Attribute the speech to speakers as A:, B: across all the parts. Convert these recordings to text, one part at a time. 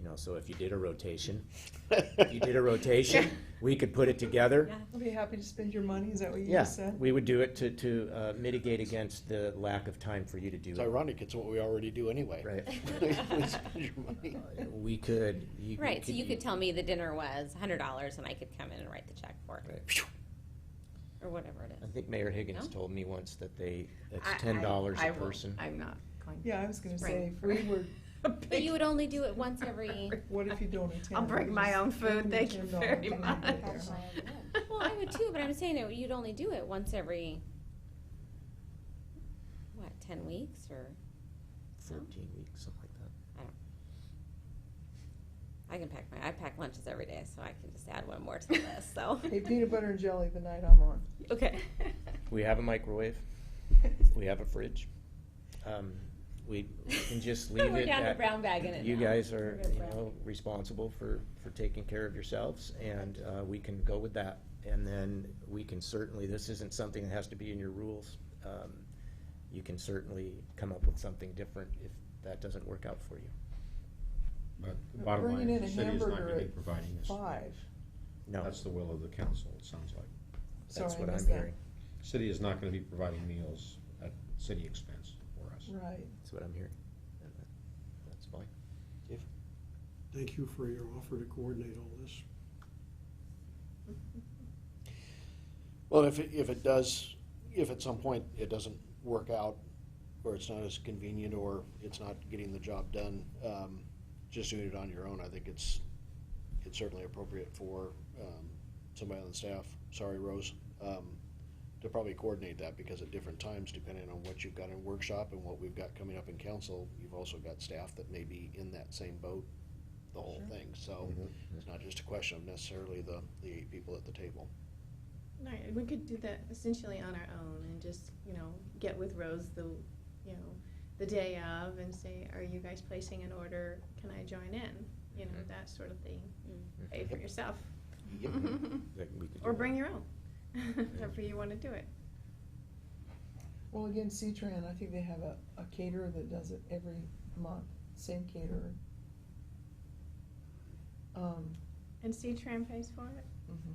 A: You know, so if you did a rotation, if you did a rotation, we could put it together.
B: I'll be happy to spend your money, is that what you
A: Yeah,
B: just uh, said?
A: we would do it to, to uh, mitigate against the lack of time for you to do
C: It's
A: it.
C: ironic, it's what we already do anyway.
A: Right.
C: We spend your money.
A: Uh, We could, you.
D: Right, so you could tell me the dinner was hundred dollars and I could come in and write the check for it,
A: Right.
D: or whatever it
A: I
D: is.
A: think Mayor Higgins
D: No?
A: told me once that they,
E: I- I-
A: it's ten dollars
E: I
A: a
E: won't.
A: person.
E: I'm not going.
B: Yeah, I was gonna say,
E: Right.
B: if we were,
D: But you would only do it once every,
B: what if you don't attend?
E: I'll bring my own food, thank you very much.
D: well, I would too, but I'm saying it- you'd only do it once every, what, ten weeks or,
A: Fourteen weeks, something like that.
D: I can pack my, I pack lunches every day, so I can just add one more to the list, so.
B: Hey, peanut butter and jelly the night I'm on.
D: Okay.
A: We have a microwave, we have a fridge. Um, We we can just leave
D: We're
A: it
D: down to
A: at,
D: brown bagging it
A: you
D: now.
A: guys are,
D: We're good
A: you
D: brown.
A: know, responsible for, for taking care of yourselves, and uh, we can go with that. And then we can certainly, this isn't something that has to be in your rules. Um, You can certainly come up with something different if that doesn't work out for you.
F: But the bottom
B: Bringing
F: line,
B: in
F: is the
B: a
F: city is not
B: hamburger
F: gonna be
B: at
F: providing this.
B: Five,
A: No,
F: That's the will of the council, it sounds like.
A: that's
B: sorry,
A: what
B: I
A: I'm
B: missed that.
A: hearing,
F: City is not gonna be providing meals at city expense for us.
B: Right,
A: that's what I'm hearing. And that- That's fine.
G: Thank you for your offer to coordinate all this.
C: Well, if, it- if it does, if at some point it doesn't work out, or it's not as convenient, or it's not getting the job done, um, just doing it on your own, I think it's, it's certainly appropriate for, um, somebody on the staff, sorry, Rose, um, to probably coordinate that, because at different times, depending on what you've got in workshop and what we've got coming up in council, you've also got staff that may be in that same boat, the whole thing, so
F: Mhm.
A: Mm-hmm.
C: it's not just a question of necessarily the, the eight people at the table.
E: Right, we could do that essentially on our own and just, you know, get with Rose the, you know, the day of and say, are you guys placing an order? Can I join in? You know,
B: Mm-hmm.
A: Mhm.
E: that sort of thing.
D: Mm.
E: Pay for yourself.
A: Yep. That we could do
E: Or
A: that.
E: bring your own, however you want to do it.
B: well, again, C-Tran, I think they have a, a caterer that does it every month, same caterer. Um,
E: And C-Tran pays for it?
B: mhm.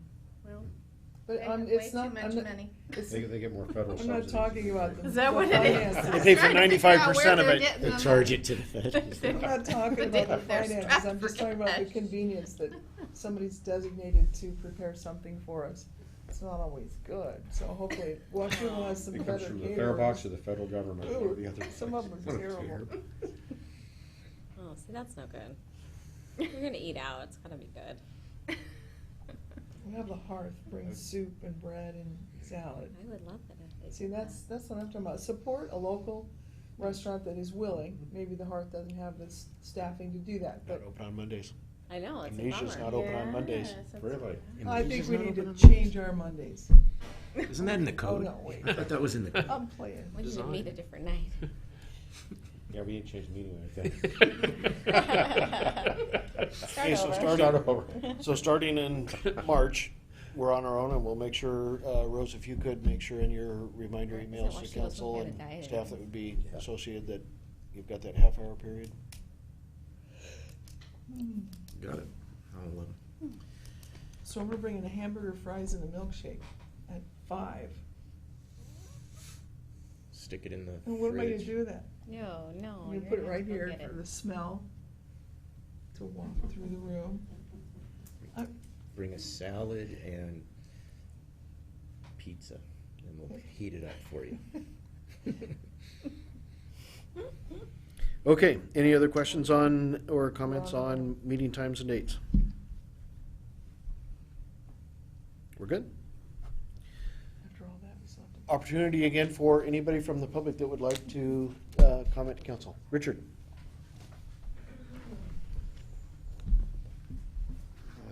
E: Well,
B: But,
E: Mm-hmm. they
B: um,
E: have way
B: it's
E: too
B: not,
E: much
B: I'm not,
E: money.
B: it's,
F: They, they get more federal
B: I'm
F: subsidies.
B: not talking about
F: than
B: the.
E: Is that
B: the
E: what it is?
C: They
B: finances.
C: pay for
E: I'm trying to figure out
C: 95% of
E: where
C: it.
E: they're getting
A: They
E: the
A: charge
E: money.
A: it to the
B: I'm not talking
E: But they
B: about the
E: have their
B: finances, I'm just talking about the
E: strategy.
B: convenience that somebody's designated to prepare something for us. It's not always good, so hopefully Washington will have some
F: It comes
B: better
F: from the fare box
B: caterers.
F: or the federal government or the
B: Ooh,
F: other.
B: Some of them
F: place.
B: are
F: I don't care.
B: terrible.
D: Oh, see, that's no good. We're gonna eat out, it's gotta be good.
B: We have the hearth, bring soup and bread and salad.
D: I would love that if they
B: See,
D: did that.
B: that's, that's what I'm talking about, support a local restaurant that is willing, maybe the hearth doesn't have the s- staffing to do that,
C: Not
B: but
C: open on Mondays.
D: I know, it's a
C: Amnesia's
D: bummer.
C: not open on Mondays.
E: Yes, that's
F: Really?
E: right.
B: I think we need to
G: Indonesia's not open on
B: change our Mondays.
A: Isn't that in the
B: Oh,
A: code?
B: no, wait,
A: I thought that was in the code.
B: I'm playing.
D: We need to meet a different night.
F: Yeah, we didn't change the meeting, I think.
C: Okay, so
D: over.
C: starting,
F: over.
C: so starting in March, we're on our own and we'll make sure, uh, Rose, if you could, make sure in your reminder
D: Is that
C: emails
D: why
C: to
D: she doesn't
C: council
D: get a
C: and
D: diet?
C: staff that would be
A: Yeah.
C: associated that you've got that half hour period.
A: Got it. I'll, um,
B: So we're bringing a hamburger, fries, and a milkshake at five.
A: Stick it in the
B: And what am I gonna
A: fridge.
B: do with that?
D: No, no.
B: I'm gonna put it right here for the smell to walk through the room.
A: Bring a salad and pizza, and we'll heat it up for you.
C: Okay, any other questions on, or comments
B: Well-
C: on meeting times and dates? We're good?
B: After all that, we still have to.
C: Opportunity again for anybody from the public that would like to, uh, comment to council. Richard?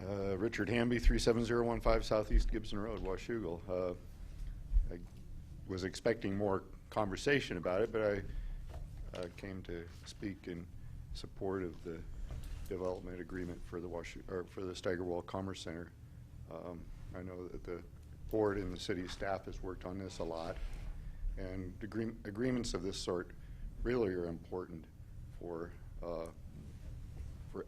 H: Uh, Richard Hamby, 37015 Southeast Gibson Road, Washougal. Uh, I was expecting more conversation about it, but I uh, came to speak in support of the development agreement for the Washu, or for the Steigerwall Commerce Center. Um, I know that the board and the city staff has worked on this a lot, and agree- agreements of this sort really are important for uh,